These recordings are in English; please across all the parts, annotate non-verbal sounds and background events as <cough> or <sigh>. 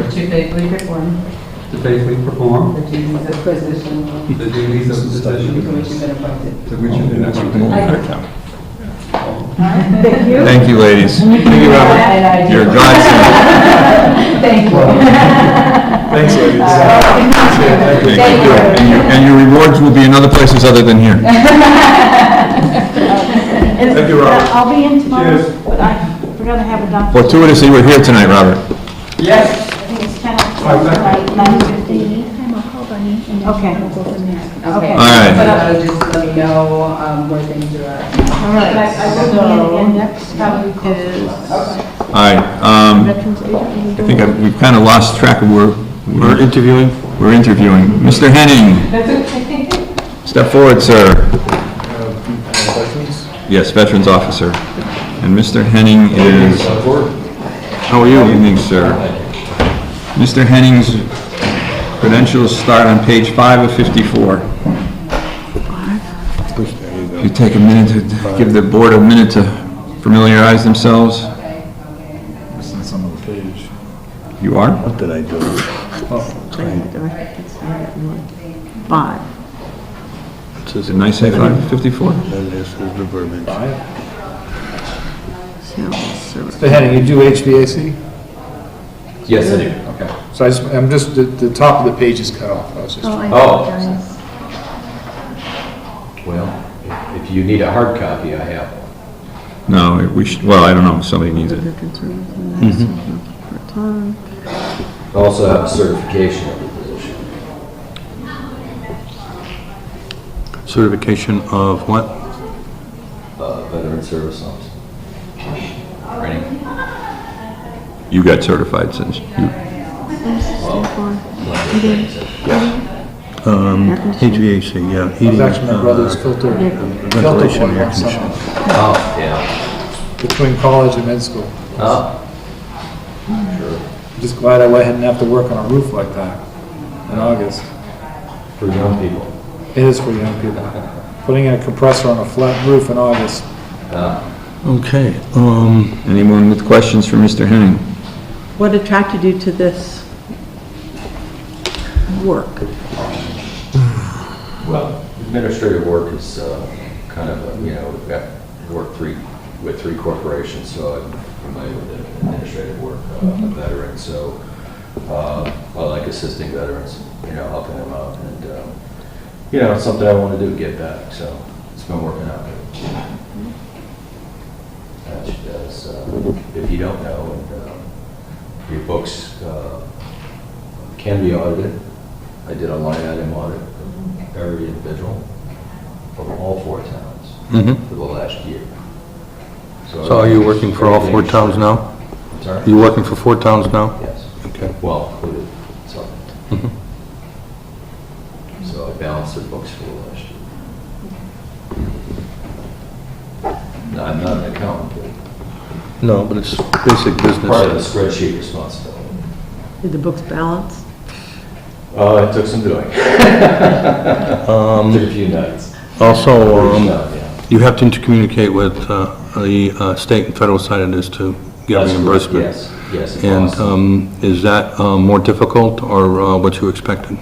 to faithfully perform to faithfully perform the duties of position the duties of the to position which you've been appointed. to which you've been appointed. Thank you. Thank you, ladies. Thank you, And I Robert. do. You're a godsend. Thank you. Thanks, ladies. <laughs> Thank Okay, good. And your- And your rewards will be in other places other than here. <laughs> Thank you, Robert. I'll be in tomorrow, Cheers. but I, we're gonna have a doctor. Fortuitously, we're here tonight, Robert. Yes. I think it's ten Five o'clock, seconds. right, nine fifteen. Anytime I'll call Bunny and then Okay. we'll go from there. Okay. Okay. All right. But I'll just let me know um, where things are at. All right. I will be in index, probably close. All right, um, Veterans Agent. I think I- we've kind of lost track of where We're we're, interviewing. we're interviewing. Mr. Henning, That's okay. step forward, sir. Questions? Yes, Veterans Officer. And Mr. Henning is, how are you? Evening, sir. Mr. Henning's credentials start on page five of 54. If you take a minute to, give the board a minute to familiarize themselves. It's not on the page. You are? What did I do? Five. Did I say five of 54? Mr. Henning, you do HVAC? Yes, I do. Okay. So I just, I'm just, the, the top of the page is cut off. I was just, Oh, I Oh. apologize. Well, if- if you need a hard copy, I have one. No, we should, well, I don't know, somebody needs it. I also have a certification of the position. Certification of what? Uh, Veteran Service Officer. Training. You got certified since you, Um, HVAC, yeah. it was heating, actually my uh, brother's filter, filter ventilation, boy air last summer, Oh, yeah. between college and med school. Oh, Just glad I went- didn't have to work on a roof like that in August. for young people. It is for young people. Putting in a compressor on a flat roof in August. Okay, um, anyone with questions for Mr. Henning? What attracted you to this work? Well, administrative work is uh, kind of, a- you know, we've got, work three, with three corporations, so I'm familiar with the administrative work uh, of veterans, so uh, I like assisting veterans, you know, helping them out, and, um, you know, it's something I want to do, give back, so it's been working out. As she does, uh, if you don't know, and um, your books uh, can be audited. I did a line item audit of every individual from all four towns Mhm. for the last year. so are you working for all four towns now? I'm Are Sorry? you working for four towns now? Yes. Okay. Mm-hmm. Well, included, so. So I balanced their books for the last year. Mm-hmm. No, I'm not an accountant, No, but it's basic but part of the business. spreadsheet responsibility. Did the books balance? Uh, it took some <laughs> doing. Took a few nights. Also, Pretty um, sure, yeah. you have to intercommunicate with uh, the uh, state and federal side of this to get That's correct, reimbursement. Yes, yes. it And costs. um, is that uh, more difficult or uh, what you expected?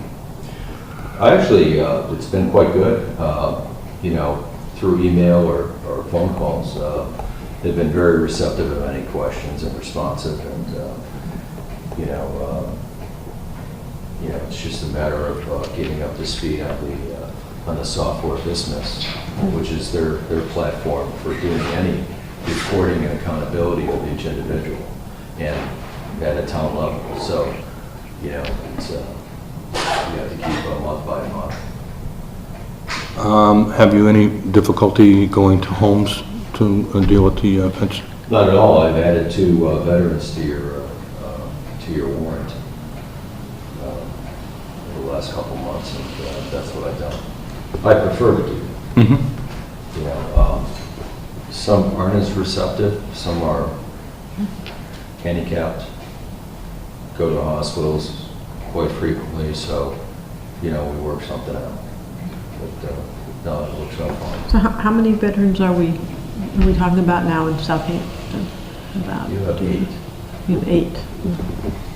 Actually, uh, it's been quite good, uh, you know, through email or, or phone calls. uh, They've been very receptive of any questions and responsive and, uh, you know, um, you know, it's just a matter of uh, getting up to speed on the, uh, on the software business, which is their, their platform for doing any reporting and accountability of each individual and at a town level. So, you know, it's, uh, you have to keep a month by month. Um, Have you any difficulty going to homes to uh, deal with the uh, vets? Not at all, I've added two uh, veterans to your, uh, uh, to your warrant uh, in the last couple months, and uh, that's what I've done. I prefer to do, Mhm. you know, um, some aren't as receptive, some are handicapped, go to hospitals quite frequently, so, you know, we work something out. But, uh, no, it works out fine. So how, how many veterans are we, are we talking about now in Southampton? About, You have eight. you have eight.